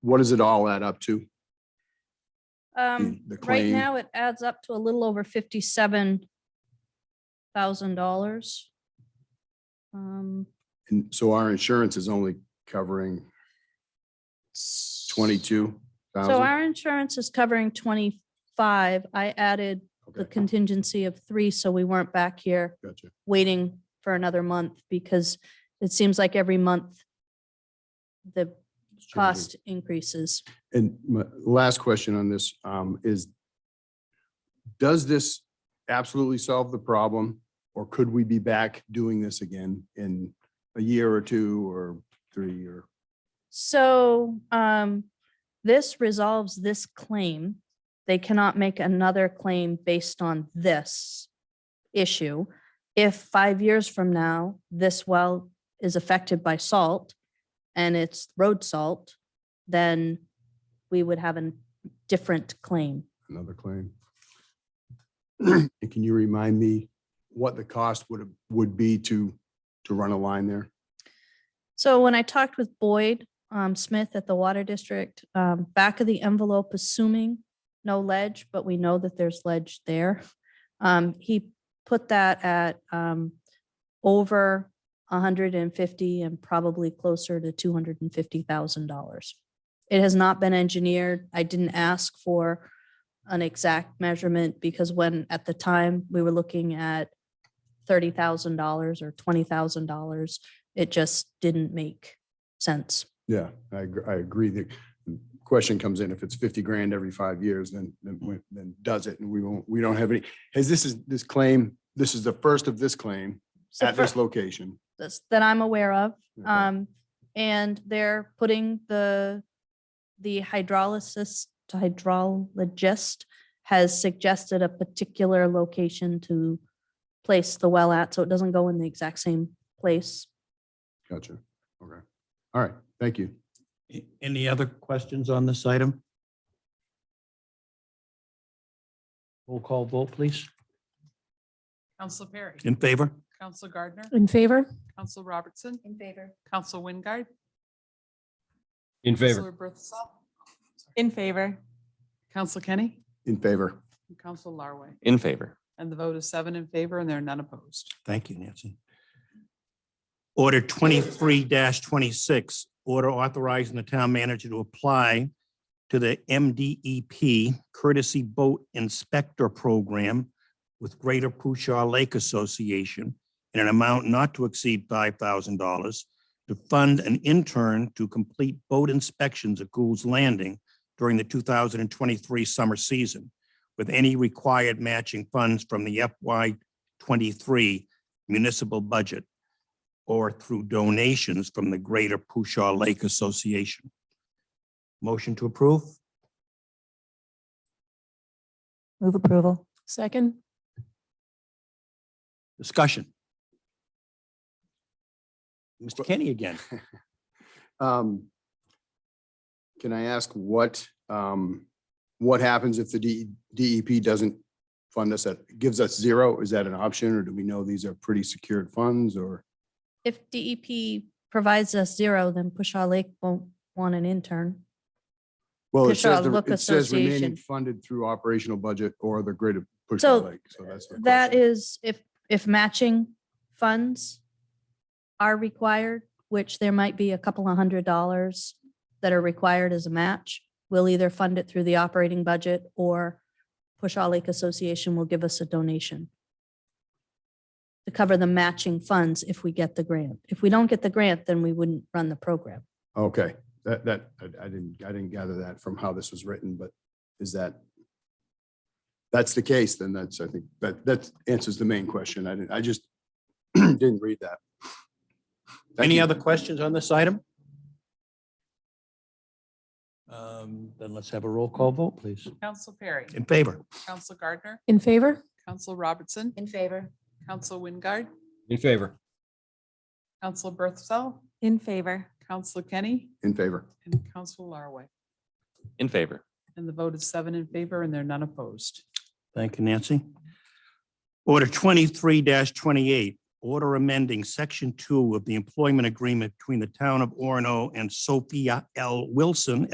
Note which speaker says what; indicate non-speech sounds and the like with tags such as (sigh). Speaker 1: What does it all add up to?
Speaker 2: Um,
Speaker 1: (clears throat) the
Speaker 2: right
Speaker 1: claim.
Speaker 2: now it adds up to a little over fifty-seven thousand dollars. Um,
Speaker 1: And so our insurance is only covering twenty-two
Speaker 2: so
Speaker 1: thousand?
Speaker 2: our insurance is covering twenty-five. I added the
Speaker 1: Okay,
Speaker 2: contingency of three, so we weren't back here
Speaker 1: gotcha.
Speaker 2: waiting for another month because it seems like every month the cost increases.
Speaker 1: And my last question on this um, is, does this absolutely solve the problem? Or could we be back doing this again in a year or two or three or?
Speaker 2: So um, this resolves this claim. They cannot make another claim based on this issue. If five years from now, this well is affected by salt and it's road salt, then we would have a different claim.
Speaker 1: another claim. And can you remind me what the cost would, would be to, to run a line there?
Speaker 2: So when I talked with Boyd um, Smith at the Water District, um, back of the envelope, assuming no ledge, but we know that there's ledge there. um, He put that at um, over 150 and probably closer to $250,000. It has not been engineered. I didn't ask for an exact measurement because when, at the time, we were looking at $30,000 or $20,000 it just didn't make sense.
Speaker 1: Yeah, I, agr- I agree. The question comes in, if it's fifty grand every five years, then, then, we- then does it? And we won't, we don't have any, has this is, this claim, this is the first of this claim
Speaker 2: So
Speaker 1: at
Speaker 2: for-
Speaker 1: this location.
Speaker 2: that's- That I'm aware of.
Speaker 1: Okay.
Speaker 2: Um, and they're putting the, the hydrolysis, hydrologist has suggested a particular location to place the well at, so it doesn't go in the exact same place.
Speaker 1: Gotcha. Okay. All right. Thank you.
Speaker 3: A- Any other questions on this item? Roll call vote, please.
Speaker 4: Council Perry.
Speaker 3: In favor?
Speaker 4: Council Gardner.
Speaker 5: In favor?
Speaker 4: Council Robertson.
Speaker 2: In favor.
Speaker 4: Council Wingard.
Speaker 6: In favor.
Speaker 4: Councilor Berthasell.
Speaker 5: In favor.
Speaker 4: Council Kenny.
Speaker 1: In favor.
Speaker 4: and Council Larway.
Speaker 6: In favor.
Speaker 4: And the vote is seven in favor and there are none opposed.
Speaker 3: Thank you, Nancy. Order twenty-three twenty-six, order authorizing the town manager to apply to the MDEP Courtesy Boat Inspector Program with Greater Pushaw Lake Association in an amount not to exceed five thousand dollars to fund an intern to complete boat inspections at Gould's Landing during the two thousand and twenty-three summer season with any required matching funds from the FY twenty-three municipal budget or through donations from the Greater Pushaw Lake Association. Motion to approve?
Speaker 5: Move approval. Second?
Speaker 3: Discussion? Mr. Kenny again.
Speaker 1: Um, Can I ask what, um, what happens if the D- DEP doesn't fund us, at gives us zero? Is that an option, or do we know these are pretty secured funds, or?
Speaker 2: If DEP provides us zero, then Pushaw Lake won't want an intern.
Speaker 1: Well, it
Speaker 2: Fish
Speaker 1: says,
Speaker 2: Oil
Speaker 1: the-
Speaker 2: Look
Speaker 1: it says remaining
Speaker 2: Association.
Speaker 1: funded through operational budget or the greater push
Speaker 2: So,
Speaker 1: Lake, so that's. the
Speaker 2: That
Speaker 1: question.
Speaker 2: is if, if matching funds are required, which there might be a couple of hundred dollars that are required as a match, we'll either fund it through the operating budget or Pushaw Lake Association will give us a donation to cover the matching funds if we get the grant. If we don't get the grant, then we wouldn't run the program.
Speaker 1: Okay, that, that, I I didn't, I didn't gather that from how this was written, but is that? That's the case, then that's, I think, that, that answers the main question. I didn't, I just (clears throat) didn't read that. Thank
Speaker 3: Any
Speaker 1: you.
Speaker 3: other questions on this item? Um, Then let's have a roll call vote, please.
Speaker 4: Council Perry.
Speaker 3: In favor?
Speaker 4: Council Gardner.
Speaker 5: In favor?
Speaker 4: Council Robertson.
Speaker 5: In favor.
Speaker 4: Council Wingard.
Speaker 6: In favor.
Speaker 4: Council Berthasell.
Speaker 5: In favor.
Speaker 4: Council Kenny.
Speaker 1: In favor.
Speaker 4: And Council Larway.
Speaker 6: In favor.
Speaker 4: And the vote is seven in favor and there are none opposed.
Speaker 3: Thank you, Nancy. Order twenty-three twenty-eight, order amending section two of the employment agreement between the town of Orono and Sophia L. Wilson